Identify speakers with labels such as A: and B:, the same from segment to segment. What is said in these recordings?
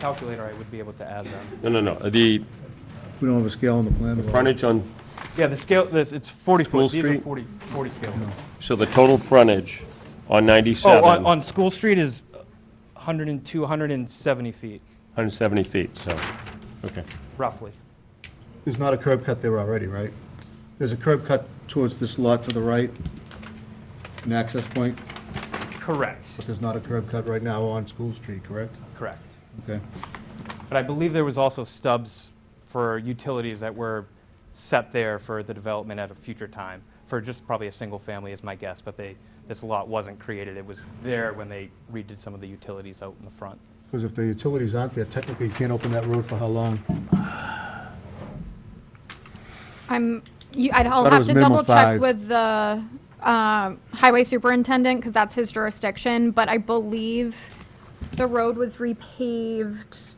A: calculator, I would be able to add them.
B: No, no, no, the
C: We don't have a scale on the plan.
B: the
C: though.
B: frontage on,
A: Yeah, the scale, this, it's 40
B: School
A: foot, these are
B: Street?
A: 40, 40 scales.
B: so the total frontage on
A: Oh,
B: 97,
A: on, on
B: 170
A: School Street is 102, 170 feet,
B: feet, so, okay.
A: roughly.
C: There's not a curb cut there already, right? There's a curb cut towards this lot to the right, an access point,
A: Correct,
C: but there's not a curb cut right now on School Street, correct?
A: correct.
C: Okay.
A: But I believe there was also stubs for utilities that were set there for the development at a future time, for just probably a single family is my guess, but they, this lot wasn't created, it was there when they redid some of the utilities out in the front.
C: Because if the utilities aren't there, technically you can't open that road for how long?
D: I'm, you- I'd, I'll
C: Thought it
D: have
C: was
D: to
C: minimum
D: double check
C: five.
D: with the um, highway superintendent, because that's his jurisdiction, but I believe the road was repaved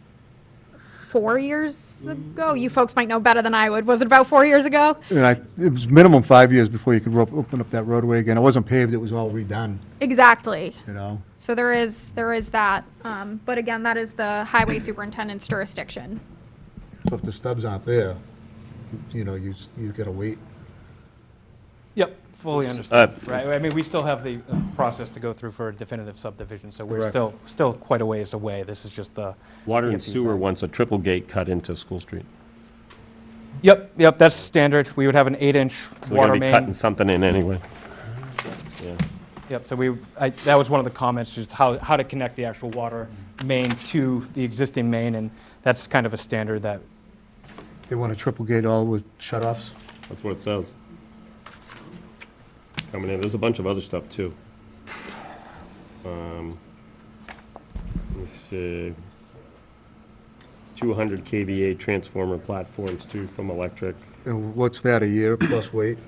D: four years ago. You folks might know better than I would. Was it about four years ago?
C: And I, it was minimum five years before you could ro- open up that roadway again. It wasn't paved, it was all redone,
D: Exactly.
C: you know?
D: So there is, there is that. um, But again, that is the highway superintendent's jurisdiction.
C: So if the stubs aren't there, you- you know, you, s- you gotta wait.
A: Yep, fully understood, right? I mean, we still have the uh, process to go through for a definitive subdivision, so we're
C: Correct.
A: still, still quite a ways away, this is just uh, the.
B: Water and
A: the-
B: sewer wants a triple gate cut into School Street.
A: Yep, yep, that's standard, we would have an eight-inch
B: We're going
A: water
B: to be cutting
A: main.
B: something in anyway.
A: Yep, so we, I, that was one of the comments, just how, how to connect the actual water main to the existing main, and that's kind of a standard that,
C: They want to triple gate all with shut-offs?
B: That's what it says. Coming in, there's a bunch of other stuff, too. Um, Let me see. 200 KVA transformer platforms, too, from electric.
C: And what's that, a year plus wait?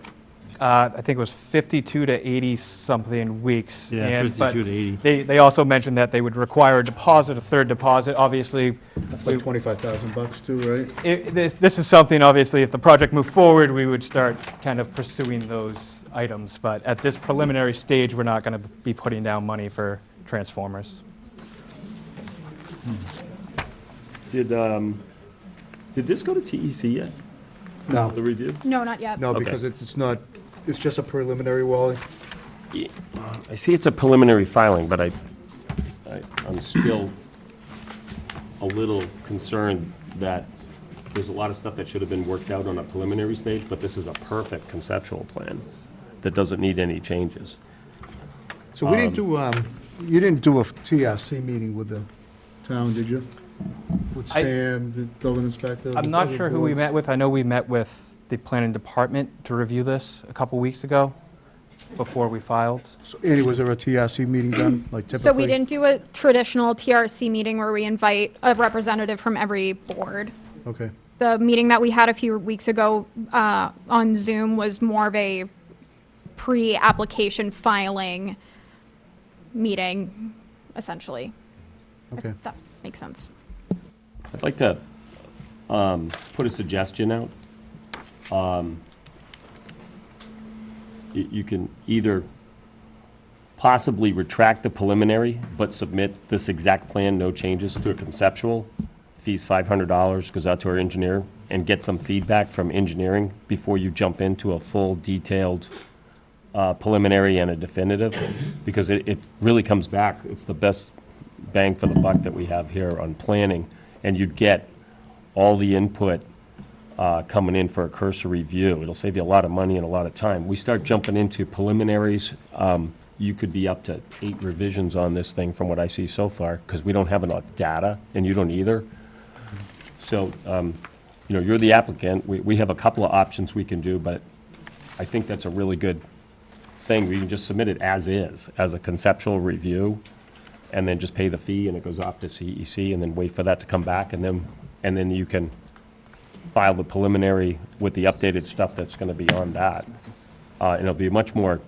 A: uh, I think it was 52 to 80-something weeks.
E: Yeah,
A: and- but
E: 52 to 80.
A: They, they also mentioned that they would require a deposit, a third deposit, obviously,
C: That's like 25,000 bucks too, right?
A: it- this this is something, obviously, if the project moved forward, we would start kind of pursuing those items, but at this preliminary stage, we're not going to be putting down money for transformers.
B: Did, um, did this go to TEC yet, the
C: No,
B: review?
D: No, not yet.
C: no,
B: Okay.
C: because it- it's not, it's just a preliminary wall.
B: I see it's a preliminary filing, but I, I- I'm still a little concerned that there's a lot of stuff that should have been worked out on a preliminary stage, but this is a perfect conceptual plan that doesn't need any changes.
C: So we didn't do, um, you didn't do a TRC meeting with the town, did you? With
A: I-
C: Sam, the building inspector? the
A: I'm not
C: other
A: sure who we
C: boards?
A: met with. I know we met with the planning department to review this a couple weeks ago, before we filed.
C: So Andy, was there a TRC meeting done, like typically?
D: So we didn't do a traditional TRC meeting where we invite a representative from every board.
C: Okay.
D: The meeting that we had a few weeks ago uh, on Zoom was more of a pre-application filing meeting, essentially. If
C: Okay.
D: That makes sense.
B: I'd like to um, put a suggestion out. Um, y- You can either possibly retract the preliminary, but submit this exact plan, no changes, to a conceptual, fees $500, goes out to our engineer, and get some feedback from engineering before you jump into a full detailed uh, preliminary and a definitive, because it, it really comes back, it's the best bang for the buck that we have here on planning, and you'd get all the input uh, coming in for a cursory view. It'll save you a lot of money and a lot of time. We start jumping into preliminaries, um, you could be up to eight revisions on this thing from what I see so far, because we don't have enough data, and you don't either. So, um, you know, you're the applicant, we, we have a couple of options we can do, but I think that's a really good thing, where you can just submit it as is, as a conceptual review, and then just pay the fee, and it goes off to CEC, and then wait for that to come back, and then, and then you can file the preliminary with the updated stuff that's gonna be on that. Uh, and it'll be a much more,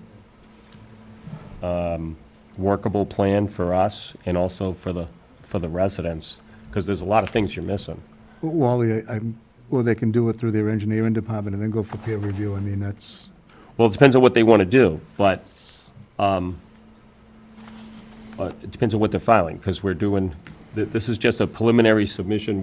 B: um, workable plan for us, and also for the, for the residents, because there's a lot of things you're missing.
C: Well, Wally, I- I'm, or they can do it through their engineering department and then go for peer review. I mean, that's,
B: Well, it depends on what they want to do, but, um, uh, it depends on what they're filing, because we're doing, Th- This is just a preliminary submission